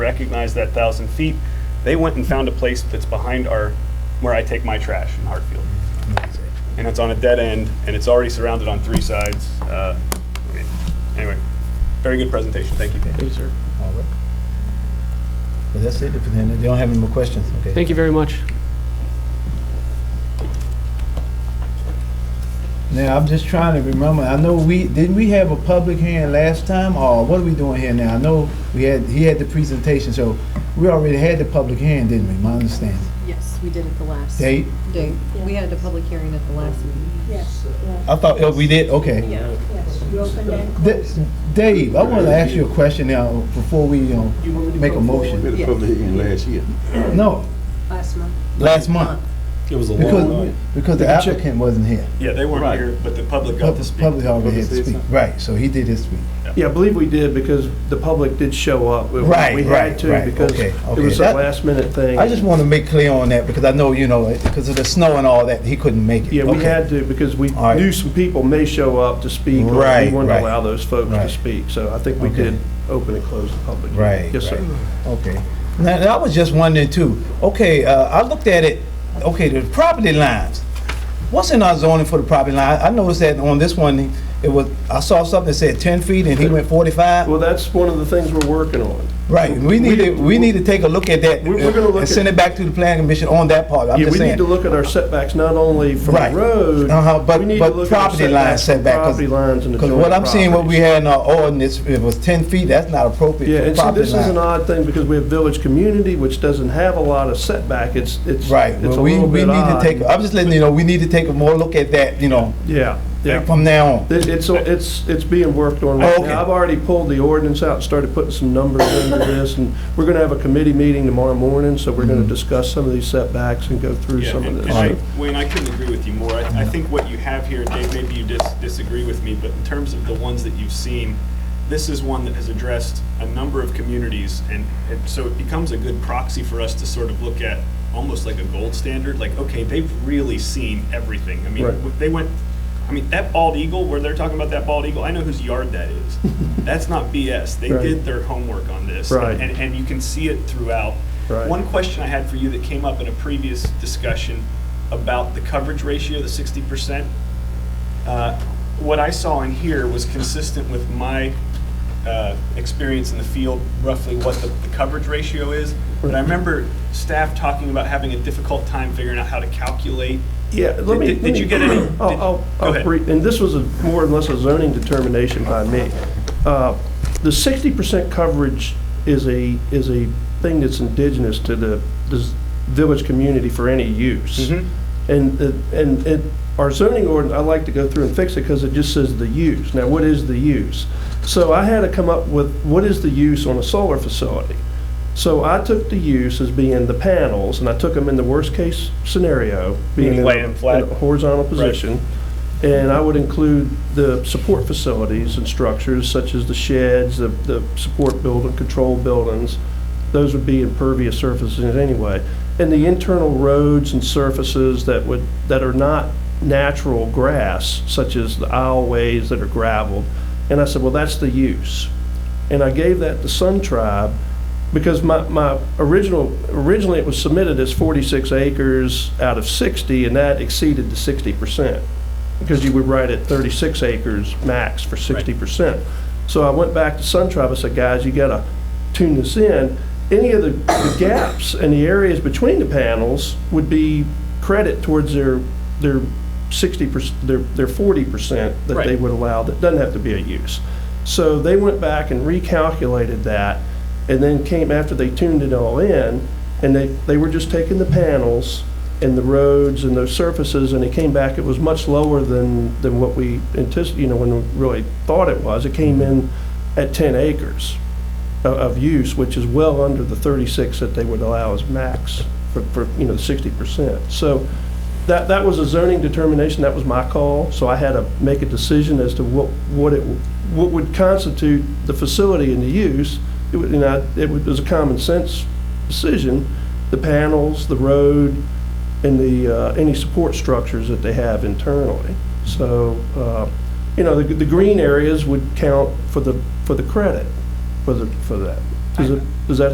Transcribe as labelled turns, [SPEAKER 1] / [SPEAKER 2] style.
[SPEAKER 1] recognize that thousand feet. They went and found a place that's behind our, where I take my trash in Hartfield. And it's on a dead end, and it's already surrounded on three sides. Uh, I mean, Anyway, very good presentation, thank you.
[SPEAKER 2] Thank you, sir.
[SPEAKER 3] All right. Well, that's it, if they they don't have any more questions, okay?
[SPEAKER 2] Thank you very much.
[SPEAKER 3] Now, I'm just trying to remember, I know we, didn't we have a public hearing last time, or what are we doing here now? I know we had, he had the presentation, so we already had the public hearing, didn't we, my understanding?
[SPEAKER 4] Yes, we did at the last.
[SPEAKER 3] Date?
[SPEAKER 4] Date. We had a public hearing at the last meeting.
[SPEAKER 5] Yes,
[SPEAKER 3] I thought, oh, we did, okay.
[SPEAKER 4] Yeah.
[SPEAKER 5] yes, you open and
[SPEAKER 3] Da-
[SPEAKER 5] close.
[SPEAKER 3] Dave, I want to ask you a question now, before we, um, make a motion.
[SPEAKER 6] We had a public hearing last year.
[SPEAKER 3] No,
[SPEAKER 5] Last month.
[SPEAKER 3] last month,
[SPEAKER 7] It was a long
[SPEAKER 3] because,
[SPEAKER 7] night.
[SPEAKER 3] because the applicant wasn't here.
[SPEAKER 1] Yeah, they weren't
[SPEAKER 7] Right.
[SPEAKER 1] here, but the public got to
[SPEAKER 3] Public,
[SPEAKER 1] speak.
[SPEAKER 3] public already had to
[SPEAKER 6] Public
[SPEAKER 3] speak,
[SPEAKER 6] citizen.
[SPEAKER 3] right, so he did his speak.
[SPEAKER 8] Yeah, I believe we did because the public did show up. We-
[SPEAKER 3] Right,
[SPEAKER 8] We
[SPEAKER 3] right,
[SPEAKER 8] had to
[SPEAKER 3] right.
[SPEAKER 8] because
[SPEAKER 3] Okay,
[SPEAKER 8] it
[SPEAKER 3] okay.
[SPEAKER 8] was a
[SPEAKER 3] That-
[SPEAKER 8] last minute thing.
[SPEAKER 3] I just want to make clear on that because I know, you know, because of the snow and all that, he couldn't make it.
[SPEAKER 8] Yeah, we
[SPEAKER 3] Okay.
[SPEAKER 8] had to because we
[SPEAKER 3] All right.
[SPEAKER 8] knew some people may show up to speak. or
[SPEAKER 3] Right,
[SPEAKER 8] We wanted to
[SPEAKER 3] right.
[SPEAKER 8] allow those folks
[SPEAKER 3] Right.
[SPEAKER 8] to speak. So I think we
[SPEAKER 3] Okay.
[SPEAKER 8] did open and close the public.
[SPEAKER 3] Right.
[SPEAKER 8] Yes, sir.
[SPEAKER 3] right. Okay. Now, and I was just wondering too, okay, uh, I looked at it, okay, the property lines. What's in our zoning for the property line? I noticed that on this one, it was, I saw something that said ten feet and he went forty-five.
[SPEAKER 8] Well, that's one of the things we're working on.
[SPEAKER 3] Right, we need to, we need to take a look at that uh,
[SPEAKER 8] We're- we're gonna look
[SPEAKER 3] and send
[SPEAKER 8] at-
[SPEAKER 3] it back to the planning commission on that part. I'm
[SPEAKER 8] Yeah,
[SPEAKER 3] just
[SPEAKER 8] we need
[SPEAKER 3] saying.
[SPEAKER 8] to look at our setbacks, not only from the
[SPEAKER 3] Right.
[SPEAKER 8] road.
[SPEAKER 3] Uh-huh, but-
[SPEAKER 8] we need to
[SPEAKER 3] but
[SPEAKER 8] look at our
[SPEAKER 3] property line
[SPEAKER 8] setbacks from
[SPEAKER 3] setback, 'cause-
[SPEAKER 8] Property lines and the
[SPEAKER 3] Because
[SPEAKER 8] joint
[SPEAKER 3] what I'm seeing, what we
[SPEAKER 8] properties.
[SPEAKER 3] had in our ordinance, it was ten feet, that's not
[SPEAKER 8] Yeah,
[SPEAKER 3] appropriate
[SPEAKER 8] and
[SPEAKER 3] for
[SPEAKER 8] see,
[SPEAKER 3] property
[SPEAKER 8] this is an
[SPEAKER 3] line.
[SPEAKER 8] odd thing because we have village community, which doesn't have a lot of setback. It's, it's.
[SPEAKER 3] Right,
[SPEAKER 8] it's
[SPEAKER 3] well,
[SPEAKER 8] a
[SPEAKER 3] we,
[SPEAKER 8] little
[SPEAKER 3] we
[SPEAKER 8] bit
[SPEAKER 3] need to
[SPEAKER 8] odd.
[SPEAKER 3] take, I'm just letting you know, we need to take a more look at that, you know,
[SPEAKER 8] Yeah, yeah.
[SPEAKER 3] from now on.
[SPEAKER 8] It- It's, it's, it's being worked on right
[SPEAKER 3] Oh, Okay.
[SPEAKER 8] now. I've already pulled the ordinance out and started putting some numbers into this, and we're gonna have a committee meeting tomorrow morning, so we're
[SPEAKER 3] Mm-hmm.
[SPEAKER 8] gonna discuss some of these setbacks and go through
[SPEAKER 1] Yeah,
[SPEAKER 8] some
[SPEAKER 1] and-
[SPEAKER 8] of
[SPEAKER 1] and I-
[SPEAKER 8] this.
[SPEAKER 1] Wayne, I couldn't agree with you more. I I think what you have here, Dave, maybe you dis- disagree with me, but in terms of the ones that you've seen, this is one that has addressed a number of communities, and and so it becomes a good proxy for us to sort of look at, almost like a gold standard, like, okay, they've really seen everything. I mean,
[SPEAKER 8] Right.
[SPEAKER 1] w- they went, I mean, that bald eagle, where they're talking about that bald eagle, I know whose yard that is. That's not BS. They
[SPEAKER 8] Right.
[SPEAKER 1] did their homework on this.
[SPEAKER 8] Right.
[SPEAKER 1] And, and you can see it throughout.
[SPEAKER 8] Right.
[SPEAKER 1] One question I had for you that came up in a previous discussion about the coverage ratio, the sixty percent. uh, What I saw in here was consistent with my uh, experience in the field, roughly what the, the coverage ratio is. But I remember staff talking about having a difficult time figuring out how to calculate.
[SPEAKER 8] Yeah, let me.
[SPEAKER 1] Did- did
[SPEAKER 8] let
[SPEAKER 1] you
[SPEAKER 8] me-
[SPEAKER 1] get any-
[SPEAKER 8] I'll-
[SPEAKER 1] did-
[SPEAKER 8] I'll,
[SPEAKER 1] go
[SPEAKER 8] I'll,
[SPEAKER 1] ahead.
[SPEAKER 8] re- and this was a more or less a zoning determination by me. Uh, The sixty percent coverage is a, is a thing that's indigenous to the, this village community for any use.
[SPEAKER 1] Mm-hmm.
[SPEAKER 8] And, the- and it, our zoning ordinance, I like to go through and fix it because it just says the use. Now, what is the use? So I had to come up with, what is the use on a solar facility? So I took the use as being the panels, and I took them in the worst-case scenario, being in a-
[SPEAKER 1] Laying flat.
[SPEAKER 8] in a horizontal position. And I would include the support facilities and structures such as the sheds, the, the support building, control buildings. Those would be impervious surfaces anyway. And the internal roads and surfaces that would, that are not natural grass, such as the aisleways that are gravelled. And I said, well, that's the use. And I gave that to Sun Tribe because my, my original, originally it was submitted as 46 acres out of 60 and that exceeded the 60% because you would write at 36 acres max for 60%. So I went back to Sun Tribe, I said, guys, you gotta tune this in. Any of the the gaps and the areas between the panels would be credit towards their, their 60%, their, their 40% that they
[SPEAKER 1] Right.
[SPEAKER 8] would allow, that doesn't have to be a use. So they went back and recalculated that and then came after they tuned it all in, and they, they were just taking the panels and the roads and those surfaces, and it came back, it was much lower than, than what we antici, you know, when we really thought it was. It came in at ten acres of, of use, which is well under the thirty-six that they would allow as max for, for, you know, sixty percent. So that, that was a zoning determination, that was my call, so I had to make a decision as to what, what it, what would constitute the facility and the use. It would, and I, it was a common sense decision, the panels, the road, and the, uh, any support structures that they have internally. So, uh, you know, the, the green areas would count for the, for the credit for the, for that. Does it, does that